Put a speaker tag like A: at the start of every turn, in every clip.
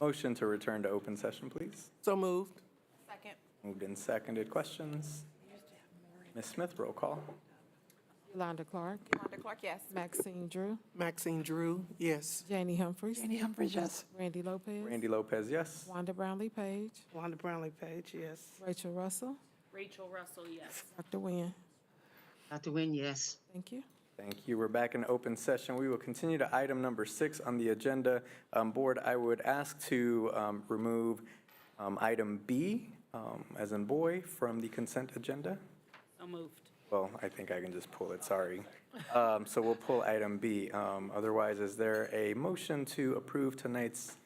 A: Motion to return to open session, please.
B: So moved.
C: Second.
A: Moved and seconded. Questions? Ms. Smith, roll call.
D: Yolanda Clark,
C: Wanda Clark, yes.
D: Maxine Drew,
B: Maxine Drew, yes.
D: Janie Humphries,
E: Jenny Humphries, yes.
D: Randy Lopez,
A: Randy Lopez, yes.
D: Wanda Brownlee Page,
B: Wanda Brownlee Page, yes.
D: Rachel Russell,
C: Rachel Russell, yes.
D: Dr. Nguyen.
F: Dr. Nguyen, yes.
D: Thank you.
A: Thank you. We're back in open session. We will continue to item number six on the agenda. Um, Board, I would ask to um, remove um, item B, um, as in boy, from the consent agenda.
C: So moved.
A: Well, I think I can just pull it, sorry. Um, So we'll pull item B. Um, Otherwise, is there a motion to approve tonight's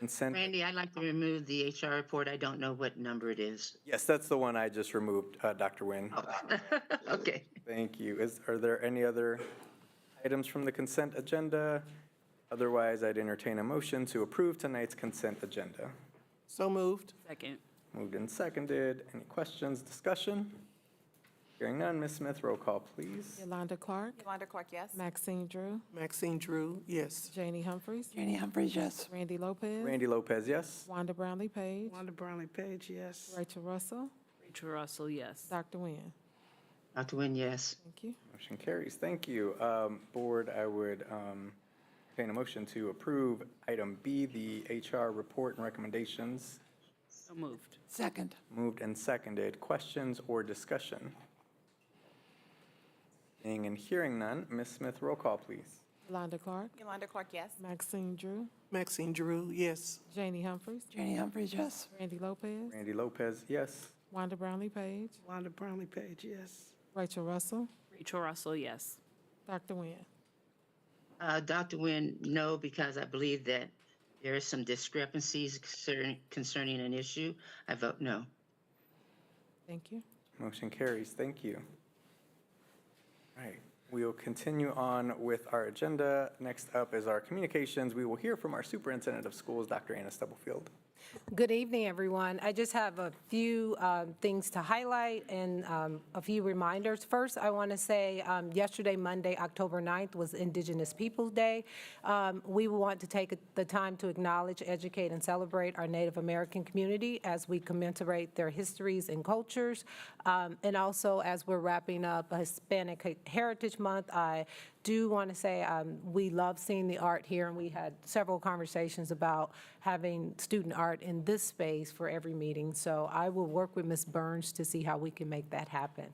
A: consent?
F: Randy, I'd like to remove the HR report. I don't know what number it is.
A: Yes, that's the one I just removed, uh, Dr. Nguyen.
F: Okay.
A: Thank you. Is, are there any other items from the consent agenda? Otherwise, I'd entertain a motion to approve tonight's consent agenda.
B: So moved.
C: Second.
A: Moved and seconded. Any questions, discussion? Hearing none, Ms. Smith, roll call, please.
D: Yolanda Clark,
C: Wanda Clark, yes.
D: Maxine Drew,
B: Maxine Drew, yes.
D: Janie Humphries,
E: Jenny Humphries, yes.
D: Randy Lopez,
A: Randy Lopez, yes?
D: Wanda Brownlee Page,
B: Wanda Brownlee Page, yes.
D: Rachel Russell,
C: Rachel Russell, yes.
D: Dr. Nguyen.
F: Dr. Nguyen, yes.
D: Thank you.
A: Motion carries. Thank you. Um, Board, I would um, entertain a motion to approve item B, the HR report and recommendations.
C: So moved.
E: Second.
A: Moved and seconded. Questions or discussion? Seeing and hearing none, Ms. Smith, roll call, please.
D: Yolanda Clark,
C: Yolanda Clark, yes.
D: Maxine Drew,
B: Maxine Drew, yes.
D: Janie Humphries,
E: Jenny Humphries, yes.
D: Randy Lopez,
A: Randy Lopez, yes.
D: Wanda Brownlee Page,
B: Wanda Brownlee Page, yes.
D: Rachel Russell,
C: Rachel Russell, yes.
D: Dr. Nguyen.
F: Uh, Dr. Nguyen, no, because I believe that there is some discrepancies concerning, concerning an issue. I vote no.
D: Thank you.
A: Motion carries. Thank you. All right, we will continue on with our agenda. Next up is our communications. We will hear from our superintendent of schools, Dr. Anna Stubblefield.
G: Good evening, everyone. I just have a few um, things to highlight and um, a few reminders. First, I want to say um, yesterday, Monday, October 9th, was Indigenous Peoples Day. Um, We want to take the time to acknowledge, educate, and celebrate our Native American community as we commemorate their histories and cultures. Um, And also, as we're wrapping up Hispanic Heritage Month, I do want to say um, we love seeing the art here, and we had several conversations about having student art in this space for every meeting. So I will work with Ms. Burns to see how we can make that happen.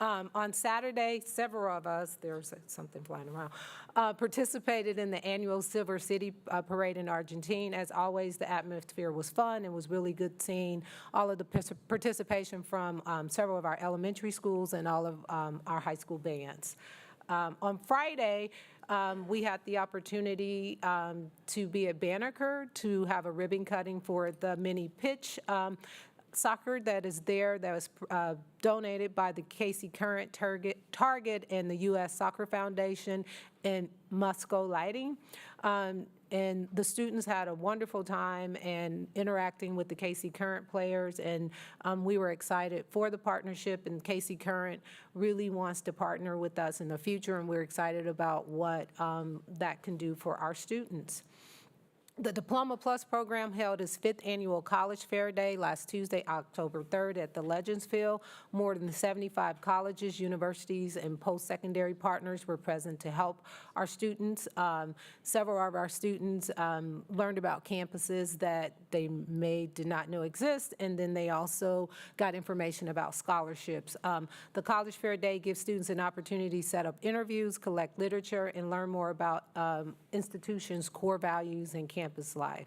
G: Um, On Saturday, several of us, there's something flying around, uh, participated in the annual Silver City uh, Parade in Argentina. As always, the atmosphere was fun. It was really good seeing all of the partic- participation from um, several of our elementary schools and all of um, our high school bands. Um, On Friday, um, we had the opportunity um, to be at Banneker to have a ribbon cutting for the mini pitch um, soccer that is there, that was uh, donated by the Casey Current Target Target, and the U.S. Soccer Foundation and Musco Lighting. Um, And the students had a wonderful time and interacting with the Casey Current players, and um, we were excited for the partnership, and Casey Current really wants to partner with us in the future, and we're excited about what um, that can do for our students. The Diploma Plus program held its fifth annual College Fair Day last Tuesday, October 3rd, at the Legends Field. More than 75 colleges, universities, and post-secondary partners were present to help our students. Um, Several of our students um, learned about campuses that they may did not know exist, and then they also got information about scholarships. Um, The College Fair Day gives students an opportunity to set up interviews, collect literature, and learn more about um, institutions' core values and campus life.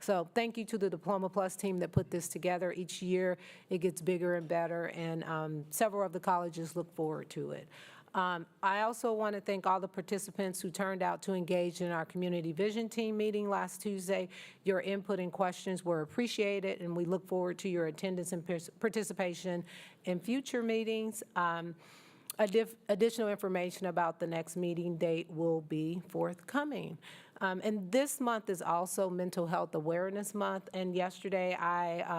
G: So thank you to the Diploma Plus team that put this together. Each year, it gets bigger and better, and um, several of the colleges look forward to it. Um, I also want to thank all the participants who turned out to engage in our Community Vision Team meeting last Tuesday. Your input and questions were appreciated, and we look forward to your attendance and pers- participation in future meetings. Um, addif- Additional information about the next meeting date will be forthcoming. Um, And this month is also Mental Health Awareness Month, and yesterday I